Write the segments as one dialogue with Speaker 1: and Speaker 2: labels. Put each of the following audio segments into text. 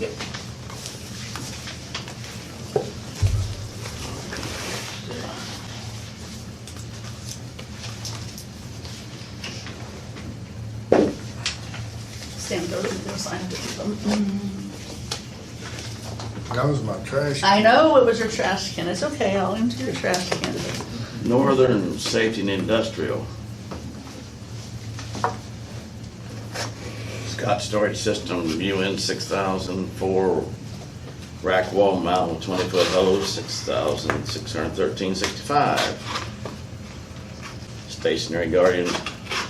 Speaker 1: Yep.
Speaker 2: Sam, go to the sign.
Speaker 3: That was my trash.
Speaker 2: I know it was your trash can. It's okay. I'll empty your trash can.
Speaker 1: Northern Safety and Industrial. Scott Storage System, UN six thousand, four rack wall mount with twenty foot hose, six thousand, six hundred thirteen sixty-five. Stationary Guardian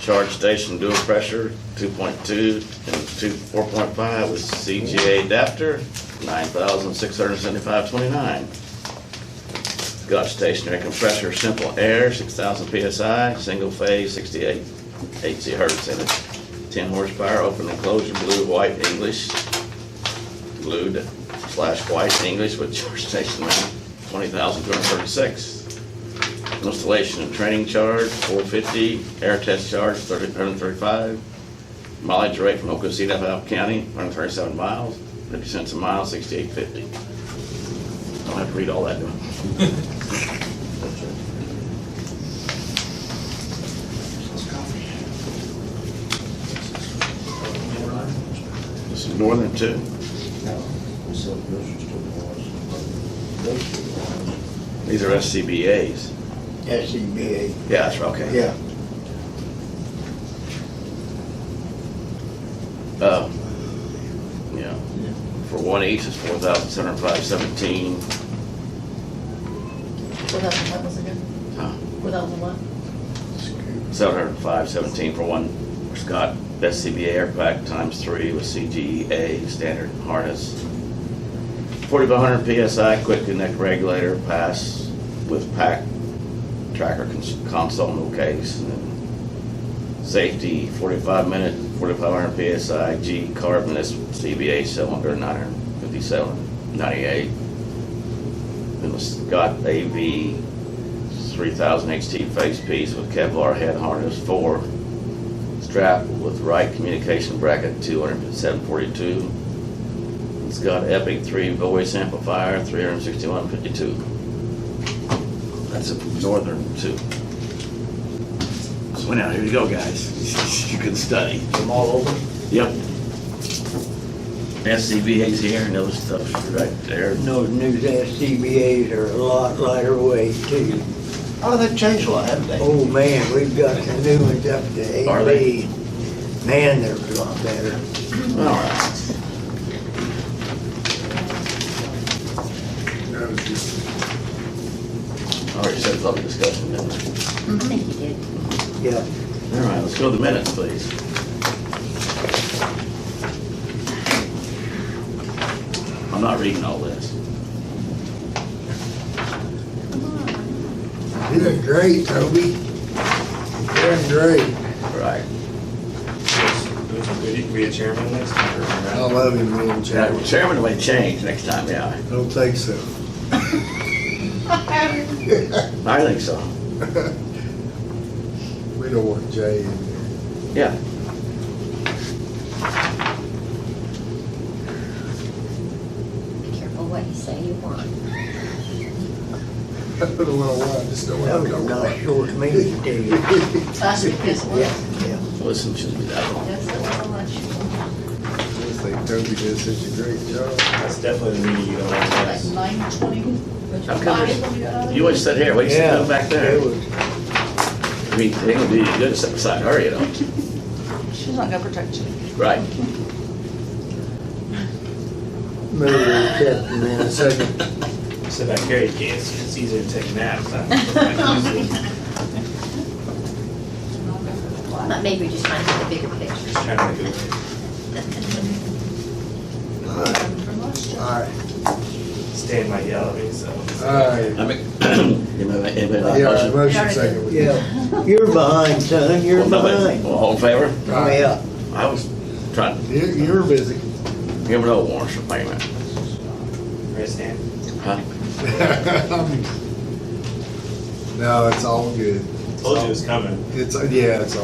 Speaker 1: Charge Station dual pressure, two point two and two, four point five with CGA adapter, nine thousand, six hundred seventy-five twenty-nine. Got stationary compressor, simple air, six thousand PSI, single phase, sixty-eight, eighty hertz, and it's ten horsepower, open enclosure, blue, white, English, glued slash white English with charge station mount, twenty thousand two hundred thirty-six. Installation and training charge, four fifty, air test charge, thirty, hundred and thirty-five. Mileage rate from Oklahoma Valve County, hundred thirty-seven miles, fifty cents a mile, sixty-eight fifty. Don't have to read all that, do I? This is Northern Two. These are SCBA's.
Speaker 4: SCBA,
Speaker 1: Yeah, that's right, okay.
Speaker 4: E yeah.
Speaker 1: Uh, Yeah. For one each, it's four thousand seven hundred five seventeen.
Speaker 2: What else? What was it again? What else? What?
Speaker 1: Seven hundred five seventeen for one, for Scott, SCBA air pack times three with CGA standard harness. Forty-five hundred PSI quick connect regulator pass with pack tracker cons- console, no case. and then Safety, forty-five minute, forty-five hundred PSI G carbonless CBA cylinder, nine hundred fifty-seven, ninety-eight. Then the Scott AV 3,000 XT face piece with Kevlar head harness, four strap with right communication bracket, 20742. It's got Epic 3 voice amplifier, 36152. That's a Northern 2. So now, here you go, guys. You can study. Them all over? Yep. SCBA's here and other stuff's right there.
Speaker 4: And those new SCBA's are a lot lighter weight too.
Speaker 5: Oh, they've changed a lot, haven't they?
Speaker 4: Oh, man, we've got the new ones up to
Speaker 1: Are they?
Speaker 4: AB. Man, they're a lot better.
Speaker 1: All right.
Speaker 3: That was just-
Speaker 1: All right, set up the discussion then.
Speaker 2: I think you did.
Speaker 4: Yeah,
Speaker 1: All right, let's go to the minutes, please. I'm not reading all this.
Speaker 4: doing great, Toby. Doing great.
Speaker 1: Right.
Speaker 6: Be a chairman next time.
Speaker 3: I love you, man, Jack.
Speaker 1: Yeah, Chairman may change next time, yeah.
Speaker 3: I Don't think so.
Speaker 1: I think so.
Speaker 3: We don't want Jay in
Speaker 1: Yeah.
Speaker 7: Be careful what you say you want.
Speaker 3: there. I don't know why, I just don't
Speaker 4: That
Speaker 3: want
Speaker 4: was
Speaker 3: to
Speaker 4: a
Speaker 3: go.
Speaker 4: nice short meeting, too.
Speaker 2: Last week, yes, it was.
Speaker 4: Yeah, yeah.
Speaker 1: Listen, shouldn't be that long.
Speaker 2: Yes, it was on that shoot.
Speaker 3: I just think Toby did such a great job.
Speaker 6: That's definitely the meeting you don't want to
Speaker 2: Like
Speaker 6: miss.
Speaker 2: nine twenty.
Speaker 1: How come You always sit here, wait, sit down back there.
Speaker 4: It was,
Speaker 1: I mean, they gonna do you good, sit beside her, you know?
Speaker 2: She's not gonna protect you.
Speaker 1: Right.
Speaker 4: maybe we kept them in a second.
Speaker 6: Sit back here, you can't, see. it's easier to take naps. I'm
Speaker 7: But maybe just trying to get the bigger picture.
Speaker 6: just trying to go.
Speaker 4: All right,
Speaker 6: Stan might yell at me, so.
Speaker 3: All right.
Speaker 1: I mean, you know, anybody like
Speaker 3: Yeah, all right,
Speaker 1: motion?
Speaker 3: motion second.
Speaker 4: yeah. You're behind, son, you're
Speaker 1: Well, nobody-
Speaker 4: behind.
Speaker 1: well, All in favor?
Speaker 3: All right.
Speaker 4: Yeah.
Speaker 1: I was trying,
Speaker 3: You, you're busy.
Speaker 1: you ever know warrants for payment,
Speaker 6: Right, Stan?
Speaker 1: huh?
Speaker 3: No, it's all good.
Speaker 6: Told you it was coming.
Speaker 3: It's, yeah, it's all